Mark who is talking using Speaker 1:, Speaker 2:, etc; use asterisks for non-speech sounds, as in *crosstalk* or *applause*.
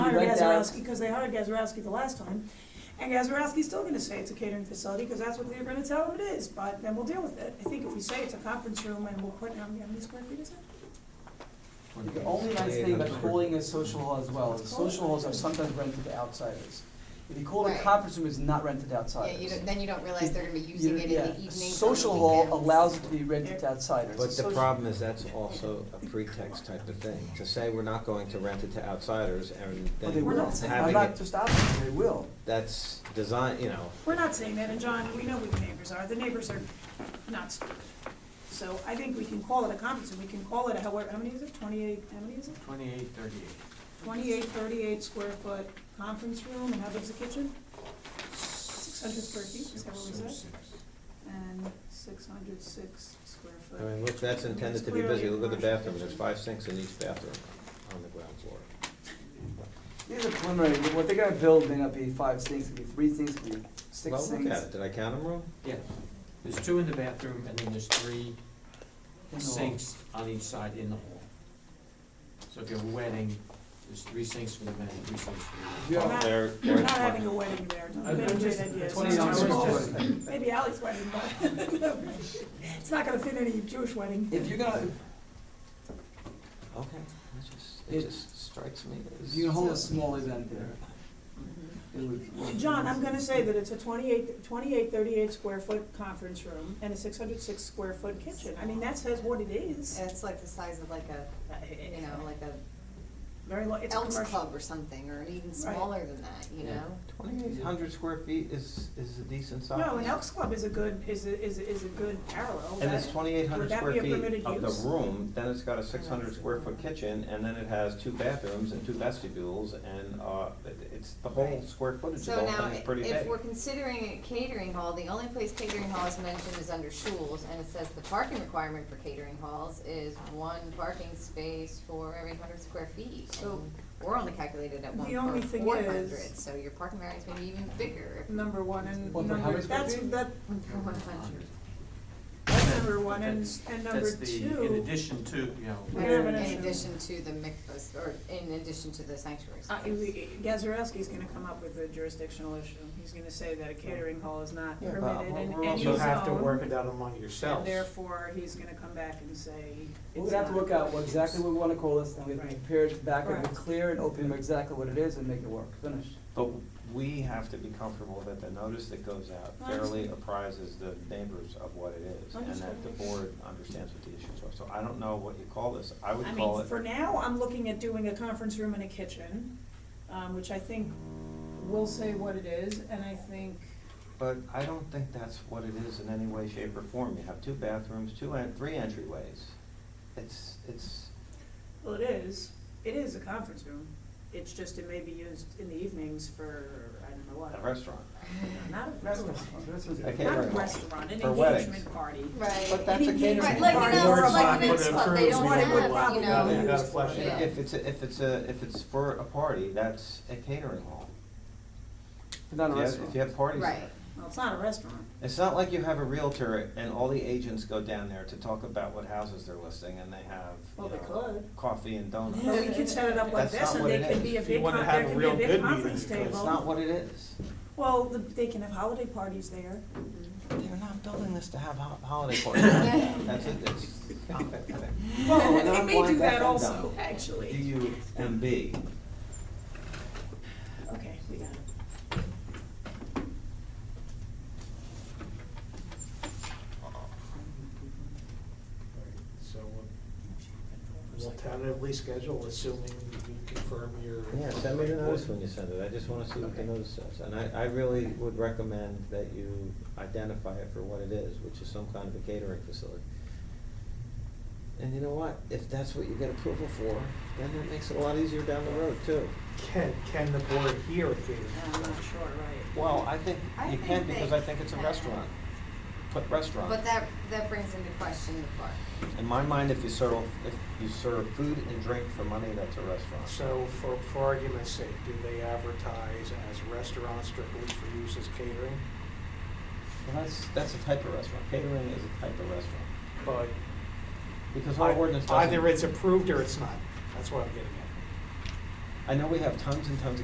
Speaker 1: Gazarovski, because they hired Gazarovski the last time. And Gazarovski's still gonna say it's a catering facility, because that's what they're gonna tell him it is, but then we'll deal with it. I think if we say it's a conference room and we'll put, how many how many square feet is it?
Speaker 2: The only nice thing about calling a social hall as well is social halls are sometimes rented to outsiders. If you call it a
Speaker 3: Right.
Speaker 2: conference room, it's not rented to
Speaker 3: Yeah, you
Speaker 2: outsiders.
Speaker 3: don't, then you don't realize they're gonna be using it in
Speaker 2: Yeah.
Speaker 3: the evenings on the
Speaker 2: Social hall
Speaker 3: weekends.
Speaker 2: allows it to be rented to outsiders.
Speaker 4: But the
Speaker 2: Social-
Speaker 4: problem is, that's also a pretext type of thing, to say we're not going to rent it to outsiders and
Speaker 2: But they
Speaker 4: then
Speaker 1: We're
Speaker 2: will.
Speaker 1: not saying-
Speaker 2: I'm
Speaker 4: having
Speaker 2: not
Speaker 4: it,
Speaker 2: just opposite, they will.
Speaker 4: that's design, you know,
Speaker 1: We're not saying that, and John, we know who the neighbors are, the neighbors are not stupid. So I think we can call it a conference, room. we can call it a, however, how many is it, twenty-eight, how many is it?
Speaker 5: Twenty-eight, thirty-eight.
Speaker 1: Twenty-eight, thirty-eight square foot conference room, and how big's the kitchen? Six hundred square feet, is that what we said? And six hundred six square
Speaker 4: I
Speaker 1: foot.
Speaker 4: mean, look, that's intended to be busy, look at the bathrooms, there's five sinks in each bathroom on the ground floor.
Speaker 2: These are preliminary, but what they're gonna build may not be five sinks, it could be three sinks, it could be six
Speaker 4: Well,
Speaker 2: sinks.
Speaker 4: look at it, did I count them wrong?
Speaker 5: Yeah, there's two in the bathroom, and then there's three
Speaker 2: in the hall.
Speaker 5: sinks on each side in the hall. So if you have a wedding, there's three sinks for the men, three sinks for the women.
Speaker 2: Yeah.
Speaker 1: Not-
Speaker 4: They're-
Speaker 1: We're
Speaker 4: they're
Speaker 1: not
Speaker 4: twenty.
Speaker 1: having a wedding there, no,
Speaker 2: I-
Speaker 1: we don't
Speaker 2: I'm
Speaker 1: do
Speaker 2: just-
Speaker 1: that yet.
Speaker 2: Twenty dollars.
Speaker 1: It's not- Maybe Ally's wedding, but, *laughs* it's not gonna fit any Jewish wedding.
Speaker 2: If you're gonna,
Speaker 4: Okay, it just, it
Speaker 2: It-
Speaker 4: just strikes me
Speaker 2: if
Speaker 4: as.
Speaker 2: you can hold a small event there,
Speaker 3: Mhm.
Speaker 2: it would.
Speaker 1: John, I'm gonna say that it's a 28 28, 38 square foot conference room and a six hundred six square foot kitchen, I mean, that says what it is.
Speaker 3: And it's like the size of like a, you know, like a
Speaker 1: Very, lo- it's a
Speaker 3: Elks
Speaker 1: commercial.
Speaker 3: Club or something, or even
Speaker 1: Right.
Speaker 3: smaller than that, you
Speaker 4: Yeah.
Speaker 3: know?
Speaker 4: Twenty-eight hundred square feet is, is a decent size.
Speaker 1: No, an Elks Club is a good, is a, is a, is a good parallel.
Speaker 4: And it's
Speaker 1: That-
Speaker 4: twenty-eight
Speaker 1: Would
Speaker 4: hundred
Speaker 1: that
Speaker 4: square
Speaker 1: be a
Speaker 4: feet
Speaker 1: permitted
Speaker 4: of the
Speaker 1: use?
Speaker 4: room, then it's got a six hundred square foot kitchen, and then it has two bathrooms and two vestibules, and, uh, it- it's, the whole
Speaker 3: Right.
Speaker 4: square footage of the
Speaker 3: So
Speaker 4: whole
Speaker 3: now,
Speaker 4: thing is pretty big.
Speaker 3: if we're considering a catering hall, the only place catering hall is mentioned is under schools, and it says the parking requirement for catering halls is one parking space for every hundred square feet.
Speaker 1: So-
Speaker 3: And we're only calculated at one
Speaker 1: The only
Speaker 3: per
Speaker 1: thing
Speaker 3: four
Speaker 1: is-
Speaker 3: hundred, so your parking area is maybe even bigger.
Speaker 1: Number one and
Speaker 2: Well, but how
Speaker 1: number,
Speaker 2: many square
Speaker 1: that's,
Speaker 2: feet?
Speaker 1: that,
Speaker 3: One hundred.
Speaker 1: that's number one, and,
Speaker 5: That's-
Speaker 1: and number
Speaker 5: That's the, in
Speaker 1: two.
Speaker 5: addition to, you know.
Speaker 1: We have an
Speaker 3: In
Speaker 1: issue.
Speaker 3: addition to the mikvahs, or in addition to the sanctuary
Speaker 1: Uh,
Speaker 3: space.
Speaker 1: we- Gazarovski's gonna come up with a jurisdictional issue, he's gonna say that a catering hall is not
Speaker 6: Yeah,
Speaker 1: permitted
Speaker 6: but
Speaker 1: in any zone.
Speaker 6: we're also have to work it out among
Speaker 1: And
Speaker 6: yourselves.
Speaker 1: therefore, he's gonna come back and say.
Speaker 2: We're
Speaker 1: it's
Speaker 2: gonna have to
Speaker 1: not-
Speaker 2: work out what exactly we wanna call this, and we have to
Speaker 1: Right.
Speaker 2: prepare it back, and
Speaker 1: Correct.
Speaker 2: clear and open exactly what it is and make it work, finished.
Speaker 4: But we have to be comfortable that the notice that goes out
Speaker 1: I
Speaker 4: fairly
Speaker 1: understand.
Speaker 4: apprises the neighbors of what it is, and that
Speaker 1: Understood.
Speaker 4: the board understands what the issues are, so I don't know what you call this, I would
Speaker 1: I
Speaker 4: call
Speaker 1: mean,
Speaker 4: it,
Speaker 1: for now, I'm looking at doing a conference room and a kitchen, um, which I think will say what it is, and I think,
Speaker 4: but I don't think that's what it is in any way, shape, or form, you have two bathrooms, two and, three entryways. It's, it's,
Speaker 1: well, it is, it is a conference room. It's just it may be used in the evenings for, I don't know
Speaker 4: a
Speaker 1: what,
Speaker 4: restaurant,
Speaker 1: not a
Speaker 2: That's
Speaker 1: restaurant,
Speaker 2: that's
Speaker 4: a
Speaker 1: not a
Speaker 4: catering hall.
Speaker 1: restaurant, an
Speaker 4: For weddings.
Speaker 1: engagement party.
Speaker 3: Right.
Speaker 4: But that's a
Speaker 1: Any
Speaker 4: catering
Speaker 3: Right,
Speaker 1: engagement
Speaker 3: like
Speaker 1: party
Speaker 3: an
Speaker 1: or a
Speaker 3: Elks, like
Speaker 1: party.
Speaker 3: an Elks Club, they don't
Speaker 1: What it would
Speaker 3: have, you
Speaker 1: probably
Speaker 3: know.
Speaker 1: be
Speaker 6: You gotta
Speaker 1: used
Speaker 6: flesh
Speaker 1: for.
Speaker 6: it out.
Speaker 4: If it's, a- if it's a, if it's for a party, that's a catering hall.
Speaker 2: Not a
Speaker 4: If you have-
Speaker 2: restaurant.
Speaker 4: If you have parties
Speaker 3: Right.
Speaker 4: there.
Speaker 1: Well, it's not a restaurant.
Speaker 4: It's not like you have a realtor and all the agents go down there to talk about what houses they're listing and they have,
Speaker 1: Well,
Speaker 4: you
Speaker 1: they
Speaker 4: know,
Speaker 1: could.
Speaker 4: coffee and donuts.
Speaker 1: But we could set it up like
Speaker 4: That's
Speaker 1: this,
Speaker 4: not
Speaker 1: and
Speaker 4: what
Speaker 1: they
Speaker 4: it
Speaker 1: could
Speaker 4: is.
Speaker 1: be a
Speaker 6: If
Speaker 1: big,
Speaker 6: you wanna
Speaker 1: con-
Speaker 6: have
Speaker 1: there
Speaker 6: a
Speaker 1: could be
Speaker 6: real
Speaker 1: a big
Speaker 6: good meeting,
Speaker 1: conference
Speaker 6: you could-
Speaker 1: table.
Speaker 4: It's not what it is.
Speaker 1: Well, the- they can have holiday parties there.
Speaker 4: They're not building this to have ho- holiday *laughs* parties. That's it, it's *laughs* complicated.
Speaker 1: Well, *laughs*
Speaker 4: and
Speaker 1: they
Speaker 4: I'm
Speaker 1: may do
Speaker 4: like,
Speaker 1: that
Speaker 4: "That's
Speaker 1: also,
Speaker 4: undone."
Speaker 1: actually.
Speaker 4: U and B.
Speaker 1: Okay, we got it.
Speaker 6: So uh, we'll tentatively schedule, assuming you confirm your.
Speaker 4: Yeah, send me the notice when you send it, I just wanna see what the
Speaker 6: Okay.
Speaker 4: notice says. And I, I really would recommend that you identify it for what it is, which is some kind of a catering facility. And you know what, if that's what you get approval for, then that makes it a lot easier down the road too.
Speaker 6: Can, can the board hear it? Peter?
Speaker 1: I'm not sure, right.
Speaker 4: Well, I think
Speaker 3: I
Speaker 4: you can
Speaker 3: think they
Speaker 4: because I think it's a
Speaker 3: can.
Speaker 4: restaurant, put
Speaker 3: But
Speaker 4: restaurant.
Speaker 3: that, that brings into question the park.
Speaker 4: In my mind, if you serve, if you serve food and drink for money, that's a restaurant.
Speaker 6: So for, for argument's sake, do they advertise as restaurants strictly for use as catering?
Speaker 4: And that's, that's a type of restaurant, catering is a type of restaurant.
Speaker 6: But
Speaker 4: Because our ordinance doesn't.
Speaker 6: either it's approved or it's not. That's what I'm getting at.
Speaker 4: I know we have tons and tons of